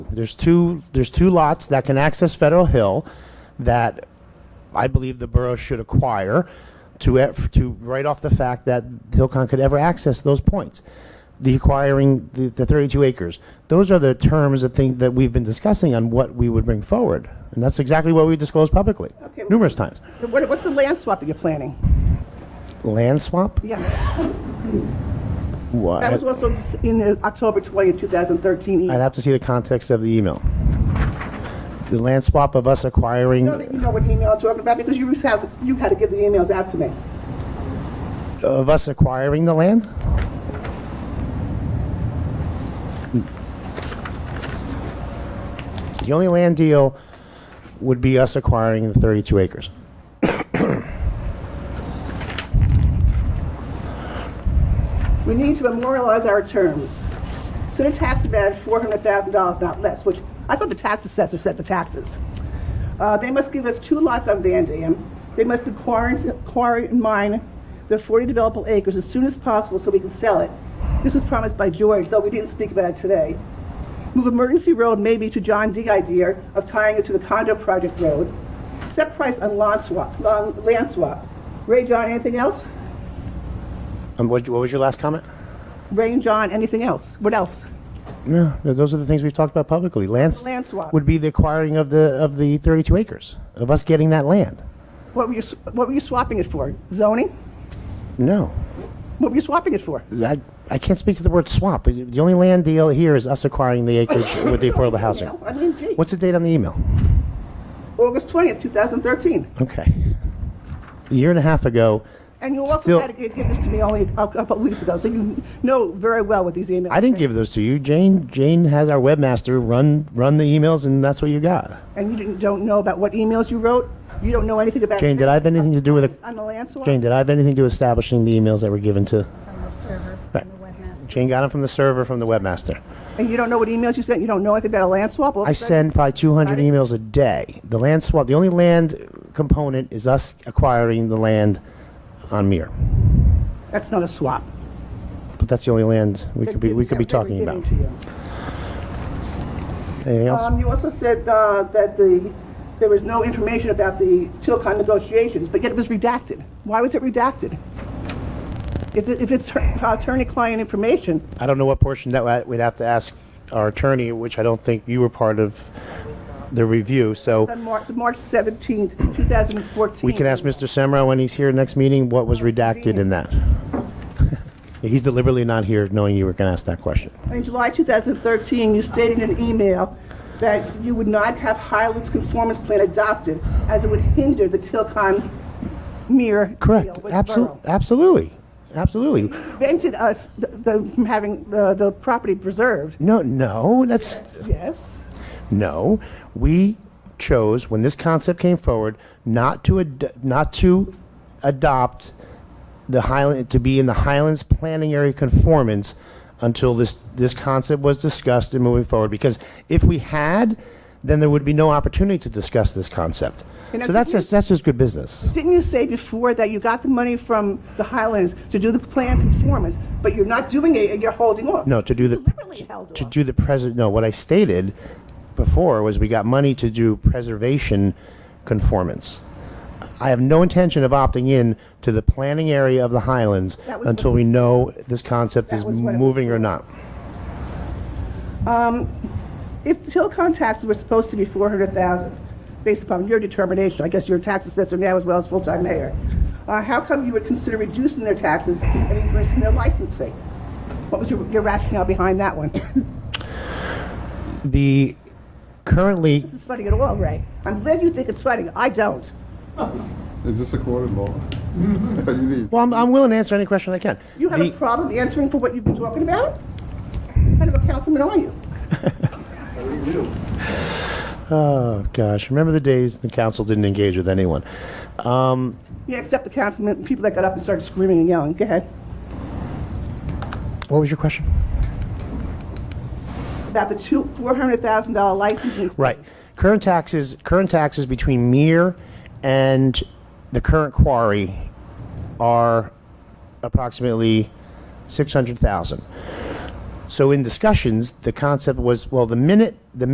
There's two, there's two lots that can access Federal Hill that I believe the borough should acquire to, eff- to write off the fact that Hillcon could ever access those points. The acquiring the, the 32 acres. Those are the terms that think that we've been discussing on what we would bring forward. And that's exactly what we disclosed publicly Okay. numerous times. What, what's the land swap that you're planning? Land swap? Yeah, What? that was also in the October 20th, 2013. I'd have to see the context of the email. The land swap of us acquiring, know that you know what email I'm talking about because you used to have, you had to give the emails out to me. of us acquiring the land? Hmm. The only land deal would be us acquiring the 32 acres. We need to memorialize our terms. Set a tax demand at $400,000, not less, which I thought the tax assessor set the taxes. Uh, they must give us two lots on Van Dam. They must acquire, acquire and mine the 40 developable acres as soon as possible so we can sell it. This was promised by George, though we didn't speak about it today. Move emergency road maybe to John D. idea of tying it to the condo project road. Set price on land swap, on land swap. Ray, John, anything else? And what what was your last comment? Ray and John, anything else? What else? No, those are the things we've talked about publicly. Land s- Land swap. would be the acquiring of the, of the 32 acres, of us getting that land. What were you, what were you swapping it for? Zoning? No. What were you swapping it for? I, I can't speak to the word swap. but The only land deal here is us acquiring the acreage with the affordable housing. Well, I mean, gee, What's the date on the email? August 20th, 2013. Okay. A year and a half ago, And you also Still- had to give give this to me only a couple of weeks ago, so you know very well what these emails I didn't give those to you. Jane, Jane has our webmaster run, run the emails, and that's what you got. And you didn't, don't know about what emails you wrote? You don't know anything about. Jane, did I have anything to do with it? On the land swap? Jane, did I have anything to do with establishing the emails that were given to? from the server, Right. from the webmaster. Jane got them from the server, from the webmaster. And you don't know what emails you sent? You don't know anything about a land swap? Well, I send probably 200 emails a day. The land swap, the only land component is us acquiring the land on Mir. That's not a swap. But that's the only land we could be, we could be That talking we were about. giving to you. Anything else? Um, you also said, uh, that the, there was no information about the Tilcon negotiations, but yet it was redacted. Why was it redacted? If, it- if it's attorney-client information, I don't know what portion that wa- we'd have to ask our attorney, which I don't think you were part of the review, so on Mar- March 17th, 2014. we can ask Mr. Semra when he's here next meeting what was redacted in that. He's deliberately not here, knowing you were going to ask that question. In July 2013, you stated in an email that you would not have Highlands Conformance Plan adopted as it would hinder the Tilcon mere deal Correct, with the borough. Absol- absolutely, absolutely. Prevented us, the- the, from having uh, the, the property preserved. No, no, that's, Yes. No, we chose when this concept came forward not to ad- not to adopt the Highland to be in the Highlands planning area conformance until this this concept was discussed and moving forward. Because if we had, then there would be no opportunity to discuss this concept. And So I that's think- just that's just good business. Didn't you say before that you got the money from the Highlands to do the plan conformance, but you're not doing it and you're holding off? No, to do the Deliberately held to off. do the president. No, what I stated before was we got money to do preservation conformance. I have no intention of opting in to the planning area of the Highlands That was what until we know this concept That is was what it was moving or not. If the Tilcon taxes were supposed to be 400,000, based upon your determination, I guess you're a tax assessor now as well as full-time mayor, uh, how come you would consider reducing their taxes and increasing their license fee? What was your your rationale behind that one? The currently This is funny at all, Ray. I'm glad you think it's funny. I don't. Is this a court of law? Are you the- well, I'm, I'm willing to answer any question I can. You have a The- problem answering for what you've been talking about? What kind of a councilman are you? oh gosh, remember the days the council didn't engage with anyone. Um, Yeah, except the councilmen, people that got up and started screaming and yelling. Go ahead. what was your question? About the two, $400,000 licensing. fee. Right. Current taxes, current taxes between Mir and the current quarry are approximately 600,000. So in discussions, the concept was, well, the minute, the